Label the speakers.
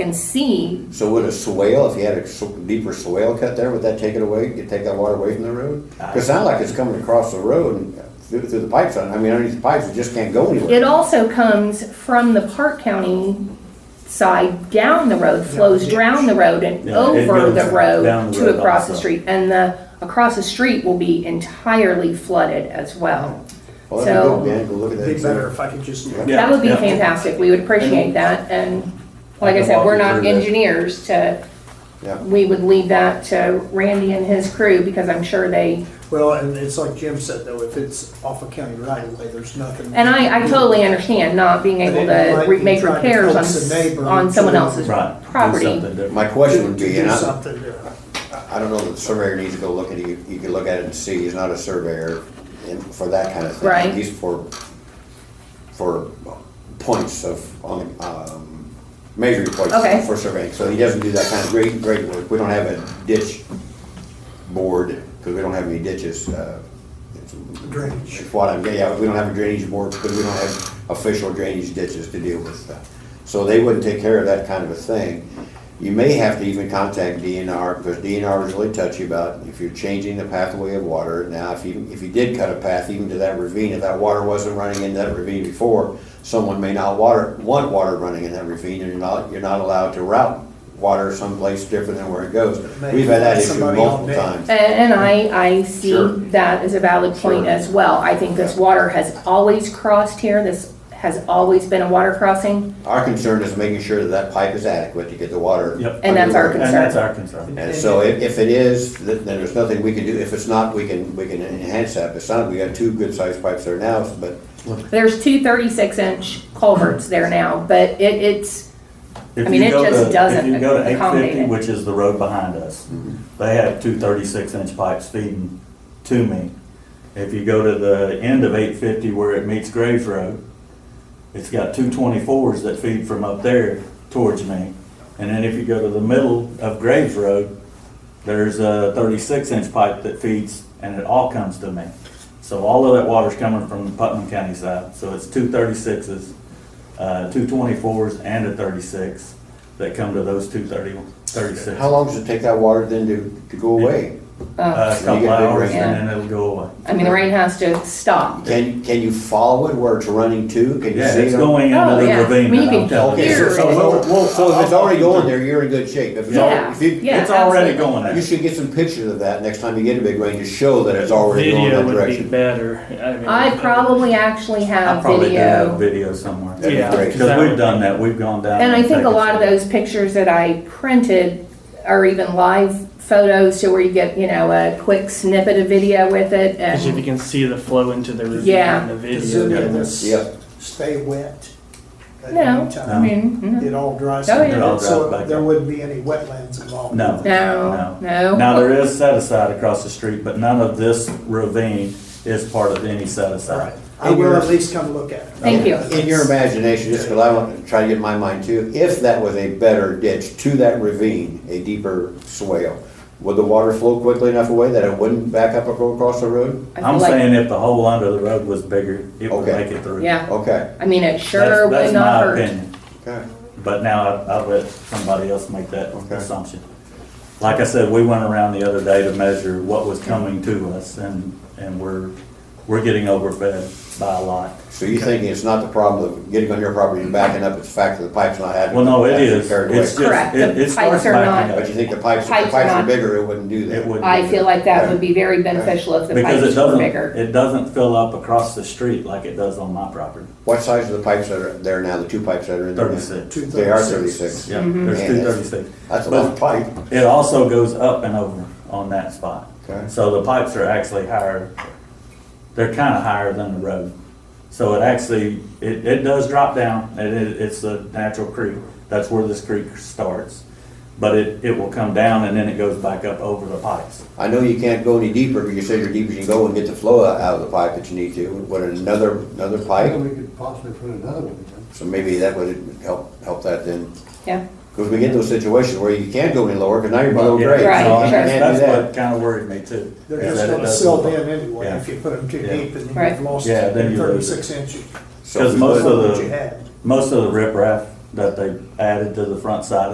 Speaker 1: can see,
Speaker 2: So would a swale, if you had a sw- deeper swale cut there, would that take it away, you take that water away from the road? Cause it's not like it's coming across the road and through, through the pipes, I mean, underneath the pipes, it just can't go
Speaker 1: it
Speaker 2: anywhere.
Speaker 1: also comes from the Park County side down the road, flows down the road and
Speaker 3: Yeah, it
Speaker 1: over the
Speaker 3: goes down
Speaker 1: road
Speaker 3: the
Speaker 1: to
Speaker 3: road
Speaker 1: across the
Speaker 3: also.
Speaker 1: street. And the, across the street will be entirely flooded as well.
Speaker 2: Well, that'd be
Speaker 1: So-
Speaker 2: good, man, go look at that.
Speaker 4: It'd be better if I could just,
Speaker 2: Yeah.
Speaker 1: That would be
Speaker 3: Yeah.
Speaker 1: fantastic, we would appreciate that, and like I said, we're not engineers to,
Speaker 2: Yeah.
Speaker 1: we would leave that to Randy and his crew, because I'm sure they,
Speaker 4: well, and it's like Jim said though, if it's off a county right of way, there's nothing.
Speaker 1: and I, I totally understand not being able to re- make repairs on, on someone else's
Speaker 3: Right. do
Speaker 1: property.
Speaker 3: something different.
Speaker 2: My question would
Speaker 4: To
Speaker 2: be,
Speaker 4: do
Speaker 2: and I,
Speaker 4: something, uh,
Speaker 2: I don't know, that the surveyor needs to go look at it, you, you can look at it and see, he's not a surveyor in, for that kind of thing.
Speaker 1: Right.
Speaker 2: He's for, for points of, on, um, measuring points
Speaker 1: Okay.
Speaker 2: for surveying, so he doesn't do that kind of great, great work, we don't have a ditch board, because we don't have any ditches, uh, it's-
Speaker 4: Drainage.
Speaker 2: what I'm getting at, we don't have a drainage board because we don't have official drainage ditches to deal with. So they wouldn't take care of that kind of a thing. You may have to even contact DNR because DNR is really touchy about if you're changing the pathway of water. Now, if you, if you did cut a path even to that ravine, if that water wasn't running into that ravine before, someone may not water, want water running in that ravine and you're not, you're not allowed to route water someplace different than where it goes.
Speaker 4: Maybe
Speaker 2: We've had that issue
Speaker 4: somebody on
Speaker 2: multiple
Speaker 4: that.
Speaker 2: times.
Speaker 1: And, and I, I see
Speaker 2: Sure.
Speaker 1: that as a valid point
Speaker 2: Sure.
Speaker 1: as well, I think this water has always crossed here, this has always been a water crossing,
Speaker 2: Our concern is making sure that that pipe is adequate to get the water.
Speaker 3: Yep.
Speaker 1: And that's our
Speaker 2: underway.
Speaker 3: And that's our concern.
Speaker 2: And so if, if it is, th- then there's nothing we can do. If it's not, we can, we can enhance that. If it's not, we got two good sized pipes there now, but
Speaker 1: there's two 36 inch culverts there now, but it, it's,
Speaker 3: If
Speaker 1: mean,
Speaker 3: you
Speaker 1: it
Speaker 3: go
Speaker 1: just
Speaker 3: to-
Speaker 1: doesn't
Speaker 3: If you go to
Speaker 1: accommodate
Speaker 3: 850,
Speaker 1: it.
Speaker 3: which is the road behind us, they have two 36-inch pipes feeding to me. If you go to the end of 850 where it meets Graves Road, it's got two 24s that feed from up there towards me. And then if you go to the middle of Graves Road, there's a 36-inch pipe that feeds, and it all comes to me. So all of that water's coming from the Putnam County side, so it's two 36s, uh, two 24s, and a 36 that come to those two 30 36s.
Speaker 2: how long does it take that water then to, to go away?
Speaker 3: Uh, a
Speaker 2: So you
Speaker 3: couple
Speaker 2: get a big
Speaker 3: hours,
Speaker 2: rain.
Speaker 3: and then it'll go away.
Speaker 1: I mean, the rain has to stop.
Speaker 2: Can, can you follow it where it's running to? Can you
Speaker 3: Yeah,
Speaker 2: see
Speaker 3: it's
Speaker 2: it?
Speaker 3: going
Speaker 1: Oh,
Speaker 3: into the
Speaker 1: yeah. I
Speaker 3: ravine,
Speaker 1: mean, you
Speaker 3: and I'm
Speaker 1: can
Speaker 3: telling
Speaker 2: Okay,
Speaker 3: you.
Speaker 2: so,
Speaker 1: Here
Speaker 2: so,
Speaker 1: it is.
Speaker 2: so- well, so if it's already going there, you're in good shape. If it's already,
Speaker 1: Yeah,
Speaker 2: if you,
Speaker 1: yeah,
Speaker 3: It's already
Speaker 1: absolutely.
Speaker 3: going
Speaker 2: you
Speaker 3: there.
Speaker 2: should get some pictures of that next time you get a big rain to show that it's already going
Speaker 5: Video
Speaker 2: that
Speaker 5: would be
Speaker 2: direction.
Speaker 5: better. I mean-
Speaker 1: I probably actually
Speaker 3: I
Speaker 1: have
Speaker 3: probably do have
Speaker 1: video.
Speaker 3: video somewhere.
Speaker 2: That'd be
Speaker 5: Yeah.
Speaker 2: great.
Speaker 3: Because we've done that, we've gone down.
Speaker 1: And I think
Speaker 3: taken
Speaker 1: a lot of
Speaker 3: some-
Speaker 1: those pictures that I printed are even live photos to where you get, you know, a quick snippet of video with it.
Speaker 5: Because if you
Speaker 1: And
Speaker 5: can see the flow into the ravine
Speaker 1: Yeah.
Speaker 5: in the
Speaker 4: To zoom
Speaker 5: video.
Speaker 4: in, this
Speaker 2: Yep.
Speaker 4: stay wet at
Speaker 1: No,
Speaker 4: any
Speaker 1: I
Speaker 4: time.
Speaker 1: mean, no,
Speaker 4: It all dries.
Speaker 1: Oh,
Speaker 4: up.
Speaker 1: yeah. It
Speaker 3: all dries back
Speaker 4: So there
Speaker 3: up.
Speaker 4: wouldn't be any wetlands involved.
Speaker 3: No.
Speaker 1: no,
Speaker 3: Now,
Speaker 1: no.
Speaker 3: there is set aside across the street, but none of this ravine is part of any set
Speaker 4: All
Speaker 3: aside.
Speaker 4: right, I will at least come look at it.
Speaker 1: Thank you.
Speaker 2: Uh, In your imagination, just because I want to try to get in my mind too, if that was a better ditch to that ravine, a deeper swale, would the water flow quickly enough away that it wouldn't back up or go across the road?
Speaker 1: I feel
Speaker 3: I'm
Speaker 1: like-
Speaker 3: saying if the hole under the road was bigger, it would
Speaker 2: Okay.
Speaker 3: make it through.
Speaker 1: Yeah,
Speaker 2: Okay,
Speaker 1: I mean, it
Speaker 3: That's-
Speaker 1: sure
Speaker 3: that's
Speaker 1: would
Speaker 3: my
Speaker 1: not hurt.
Speaker 3: opinion.
Speaker 2: okay.
Speaker 3: But now I- I'll let somebody else make that
Speaker 2: Okay.
Speaker 3: assumption. Like I said, we went around the other day to measure what was coming to us and, and we're, we're getting overfed by a lot.
Speaker 2: So you're thinking it's not the problem of getting on your property and backing up, it's the fact that the pipe's not adequate?
Speaker 3: Well, no, it
Speaker 2: actually
Speaker 3: is.
Speaker 2: carried
Speaker 3: It's
Speaker 2: away.
Speaker 1: Correct.
Speaker 3: just, it,
Speaker 1: The
Speaker 3: it starts
Speaker 1: pipes are
Speaker 3: backing
Speaker 1: not-
Speaker 2: But you
Speaker 3: up.
Speaker 2: think the pipes, if
Speaker 1: Pipes
Speaker 2: the pipes were
Speaker 1: not-
Speaker 2: bigger, it wouldn't do that?
Speaker 3: It would.
Speaker 1: I feel like that would be very beneficial if the
Speaker 3: Because it
Speaker 1: pipes were
Speaker 3: doesn't,
Speaker 1: bigger.
Speaker 3: it doesn't fill up across the street like it does on my property.
Speaker 2: What size are the pipes that are there now, the two pipes that are in there? now?
Speaker 3: 36.
Speaker 2: They are thirty-six.
Speaker 3: Yeah,
Speaker 1: Mm-hmm.
Speaker 3: there's
Speaker 2: Yeah,
Speaker 3: two
Speaker 2: that's-
Speaker 3: thirty-six.
Speaker 2: That's a lot of pipe.
Speaker 3: It also goes up and over on that spot.
Speaker 2: Okay.
Speaker 3: So the pipes are actually higher, they're kind of higher than the road. So it actually, it, it does drop down, and it, it's a natural creek. That's where this creek starts. But it, it will come down and then it goes back up over the pipes.
Speaker 2: I know you can't go any deeper, but you say you're deep as you can go and get the flow out out of the pipe that you need to. Would another, another pipe?
Speaker 6: we could possibly put another one in.
Speaker 2: So maybe that would help, help that then.
Speaker 1: Yeah,
Speaker 2: Because we get those situations where you can't go any lower, because now you're below
Speaker 3: Yeah,
Speaker 2: grade. Oh, so
Speaker 1: Right,
Speaker 3: so
Speaker 2: you
Speaker 1: sure.
Speaker 3: I-
Speaker 2: can't do
Speaker 3: That's
Speaker 2: that.
Speaker 3: what kind of worried me too.
Speaker 4: They're
Speaker 3: is
Speaker 4: just
Speaker 3: that it
Speaker 4: gonna
Speaker 3: doesn't
Speaker 4: silt
Speaker 3: work.
Speaker 4: in anyway,
Speaker 3: Yeah.
Speaker 4: if you put them too
Speaker 3: Yeah.
Speaker 4: deep and then
Speaker 1: Right.
Speaker 4: you've lost
Speaker 3: Yeah, then you lose
Speaker 4: thirty-six inches.
Speaker 2: So
Speaker 3: Because
Speaker 2: we
Speaker 3: most
Speaker 2: would-
Speaker 3: of
Speaker 4: What
Speaker 3: the-
Speaker 4: you had.
Speaker 3: Most of the riprap that they added to the front side